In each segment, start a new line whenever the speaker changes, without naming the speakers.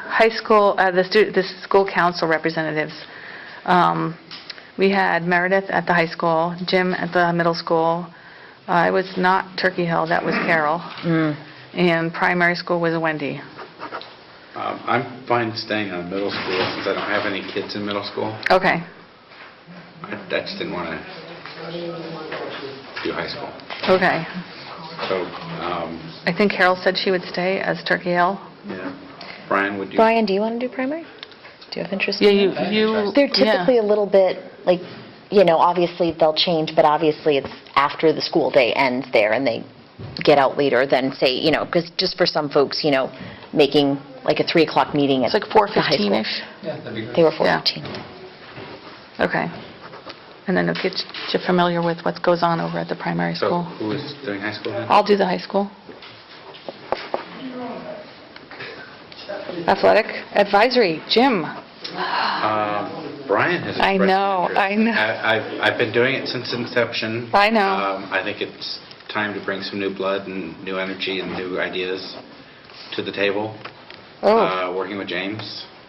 high school, uh, the stu, the school council representatives. Um, We had Meredith at the high school, Jim at the middle school. Uh, It was not Turkey Hill, that was Carol. Mm. And primary school was Wendy.
Um, I'm fine staying on middle school since I don't have any kids in middle school.
Okay,
I I just didn't want to do high school.
okay.
So, um,
I think Carol said she would stay as Turkey Hill.
yeah, Brian, would you?
Brian, do you want to do primary? Do you have interest in
Yeah,
that?
you, you.
They're
yeah.
typically a little bit, like, you know, obviously they'll change, but obviously it's after the school day ends there and they get out later than say, you know, because just for some folks, you know, making like a 3 o'clock meeting at
It's like
the high school.
4:15-ish.
They were
Yeah.
4:15.
Okay. And then it'll get you familiar with what goes on over at the primary
So
school.
who is doing high school then?
I'll do the high school. Athletic Advisory, Jim.
Um, Brian has
I
expressed an
know,
interest.
I know.
I- I've, I've been doing it since inception.
I know.
Um, I think it's time to bring some new blood and new energy and new ideas to the table.
Oh,
Uh, Working with James.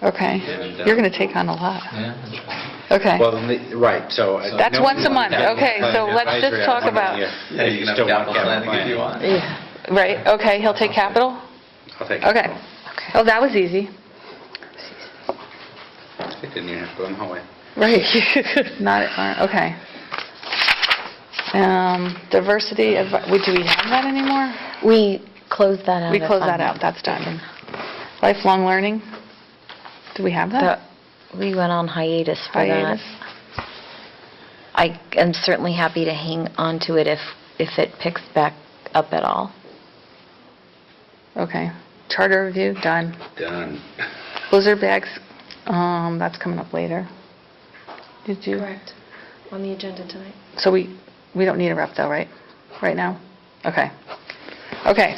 okay.
and, uh,
You're going to take on a lot.
Yeah.
Okay.
Well, the- right, so... uh, I-
That's
no-
once a month. Okay, so
Yeah.
let's just talk about-
Yeah.
Yeah, you
You
can
still
have
want
capital
capital
planning if you
planning.
Yeah.
want.
Right, okay, he'll take capital?
I'll take it.
Okay. Oh, that was easy.
I didn't even have to go in the hallway.
Right. Not, uh, okay. Um, Diversity, advi- we- do we have that anymore?
We closed that out.
We
if
close
I'm
that
not
out, that's done. Lifelong learning, do we have
That-
that?
We went on hiatus for that.
Hiatus.
I am certainly happy to hang on to it if, if it picks back up at all.
Okay. Charter review, done.
Done.
Blizzard bags, um, that's coming up later. Did you?
Correct, on the agenda tonight.
So we, we don't need a rep though, right? Right now? Okay. Okay.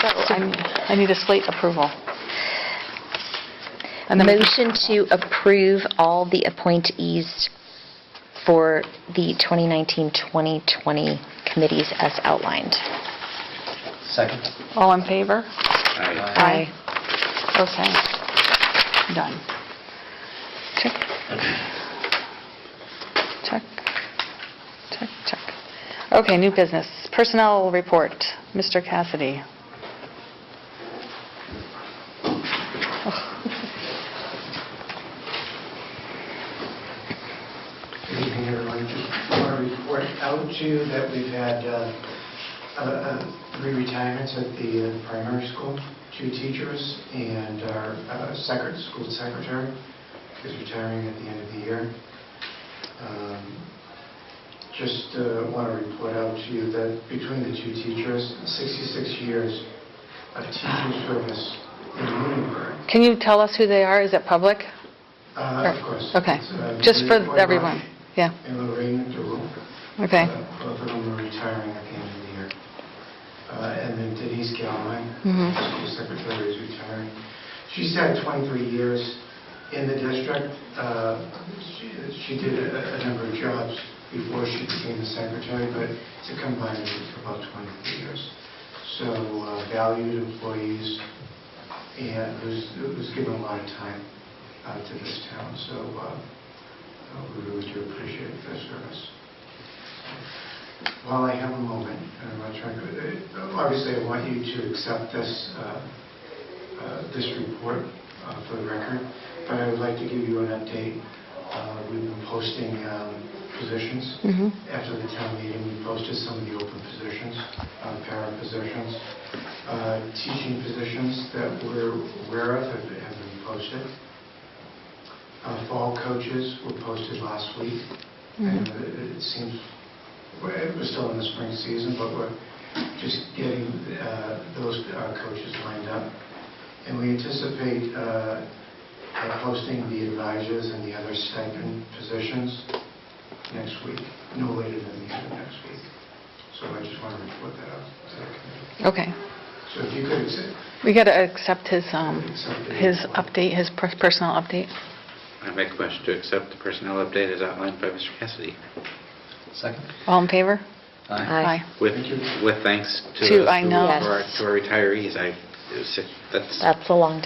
So I need- I need a slate approval. And then we can-
Motion to approve all the appointees for the 2019-2020 committees as outlined.
Second.
All in favor? Aye.
Aye.
Okay. Done. Check. Check. Check, check. Okay, new business. Personnel report, Mr. Cassidy.
Good evening, everyone. Just want to report out to you that we've had uh, uh, uh, three retirements at the uh, primary school, two teachers, and our uh, secret, school secretary is retiring at the end of the year. Um, Just want to report out to you that between the two teachers, 66 years of teaching service in Lunenburg.
Can you tell us who they are? Is it public?
Uh, Of course.
Okay,
it's, uh,
just
Maria
for
Boymark
everyone. Yeah,
And Lorraine DeRue.
okay.
Uh, Both of them are retiring at the end of the year. Uh, And then Denise Galvin,
Mhm.
school secretary, is retiring. She's had 23 years in the district. Uh, She she did a a number of jobs before she became the secretary, but it's a combined of about 23 years. So uh, valued employees, and was was given a lot of time uh, to this town, so uh, uh, we really do appreciate their service. While I have a moment, and I'm not trying to, uh, obviously, I want you to accept this, uh, uh, this report uh, for the record, but I would like to give you an update. Uh, We've been posting um, positions.
Mm-hmm.
After the town meeting, we posted some of the open positions, uh, para positions. Uh, Teaching positions that we're aware of have have been posted. Uh, Fall coaches were posted last week.
Mm-hmm.
And it it seems, well, it was still in the spring season, but we're just getting uh, those uh, coaches lined up. And we anticipate uh, uh, posting the advisors and the other stipend positions next week, no later than the end of next week. So I just want to report that out to the committee.
Okay.
So if you could accept.
We got to accept his, um,
accept the-
his update, his per- personal update.
I make a motion to accept the personnel update as outlined by Mr. Cassidy,
Second.
All in favor?
Aye.
with,
Thank you.
with thanks to
To-
those
I
who
know.
are- to our retirees. I, it was- that's
That's a long